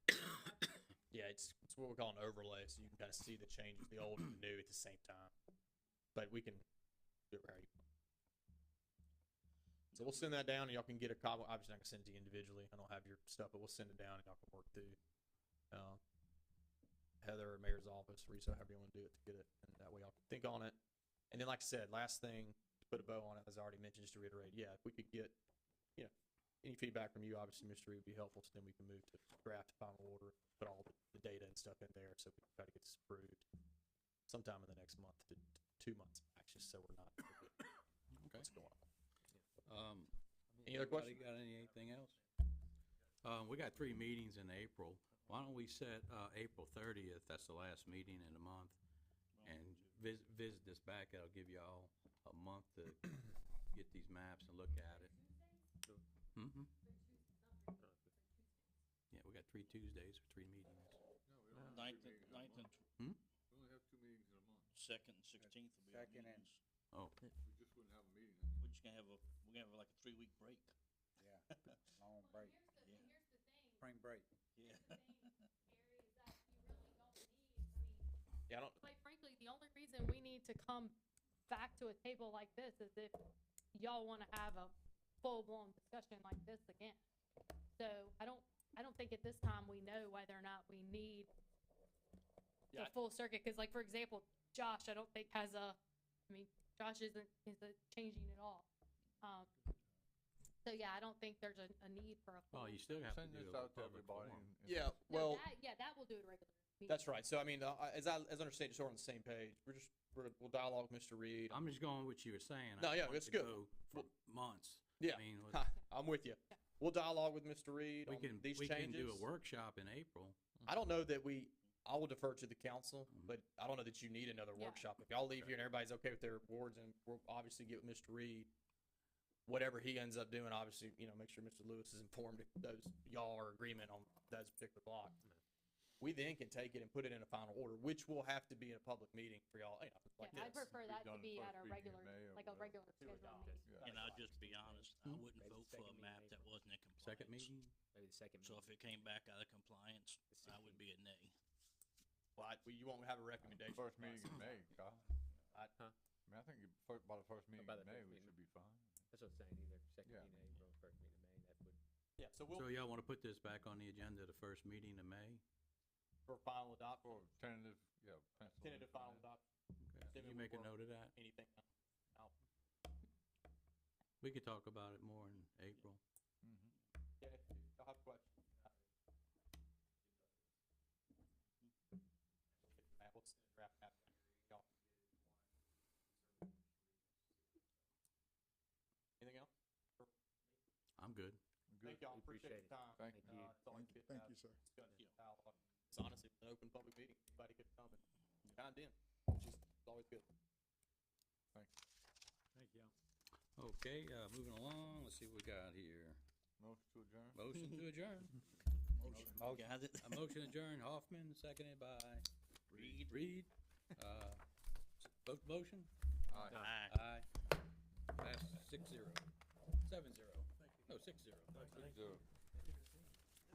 it's, it's what we call an overlay, so you can kind of see the changes, the old and the new at the same time. But we can do it right. So we'll send that down, and y'all can get a copy. Obviously, I can send it to you individually. I don't have your stuff, but we'll send it down, and y'all can work through. Um, Heather or Mayor's office, Risa, however you want to do it, to get it, and that way y'all can think on it. And then, like I said, last thing to put a bow on it, as I already mentioned, just to reiterate, yeah, if we could get, you know, any feedback from you, obviously, Mr. Reed, would be helpful, so then we can move to draft final order, put all the, the data and stuff in there, so we can try to get this approved sometime in the next month to t- two months, actually, so we're not forgetting Okay. what's going on. Um, Any other anybody questions? Got anything else? Um, we got three meetings in April. Why don't we set, uh, April thirtieth, that's the last meeting in the month, and vis- visit this back, it'll give y'all a month to get these maps and look at it. Mm-hmm. Yeah, we got three Tuesdays or three meetings. Ninth, and- ninth and Hmm? We only have two meetings in a month. second and sixteenth will be our Second and- meetings. Oh, We just wouldn't have a meeting. We're just gonna have a, we're gonna have like a three-week break. Yeah, long break, Yeah. spring break. Yeah. Yeah, I don't, Quite frankly, the only reason we need to come back to a table like this is if y'all want to have a full-blown discussion like this again. So I don't, I don't think at this time we know whether or not we need Yeah, the I- full circuit, because like, for example, Josh, I don't think has a, I mean, Josh isn't, isn't changing at all. Um, so yeah, I don't think there's a, a need for a. well, full- you still have to do a public forum. yeah, No, well. that- Yeah, that will do it regular. meeting. That's right. So I mean, uh, I- as I as I understand, it, so we're on the same page. We're just we're, we'll dialogue with Mr. Reed. I'm, I'm just going with what you were saying. No, I don't yeah, want it's to good. go For months. Yeah. I mean, let's- I'm with you. We'll dialogue with Mr. Reed We on can, these we can changes. do a workshop in April. I don't know that we. I will defer to the council, Mm-hmm. Mhm. but I don't know that you need another Yeah. workshop. If y'all leave here and everybody's okay with their awards, and we'll obviously get with Mr. Reed, whatever he ends up doing, obviously, you know, make sure Mr. Lewis is informed if those y'all are agreement on those particular block. Mm-hmm. We then can take it and put it in a final order, which will have to be in a public meeting for y'all, you know, like Yeah, I this. prefer We've that to done it be first meeting at a in regular, May or like a whatever. regular schedule meeting. And I'll just be honest, I Hmm. wouldn't Maybe vote for a second meeting in map that April. wasn't in compliance. Second meeting? Maybe the second. So if it came back out of compliance, I would be a nay. But you won't have a recommendation. First from us. meeting in May, Kyle. I- I mean, I think you- fir- by the first meeting by the in May, first we meeting. should be fine. That's what I'm saying, either second Yeah. meeting in April, first meeting in May, that would. Yeah, so we'll, So y'all want to put this back on the agenda, the first meeting in May? for final adopt, or Or tentative, yeah. pencil in tentative for final that. adopt, Okay. Then Can you we'll make a work. note of that? anything. We could talk about it more in April. Mhm. Yeah, if y'all have questions. Anything else? I'm good. Good. Thank y'all, We appreciate your appreciate time. Thank you. Uh, it's always good to Thank have you, sir. discussion and dialogue. It's honestly an open public meeting, anybody could come and chime in, which is always good. Okay, uh, moving along, let's see what we got here. Motion to adjourn? Motion to adjourn. Got it? A motion adjourned, Hoffman, seconded by Read. Reed. Uh, Vote motion? Aye. Aye. Aye. Pass six zero. Seven zero. No, six zero. Zero.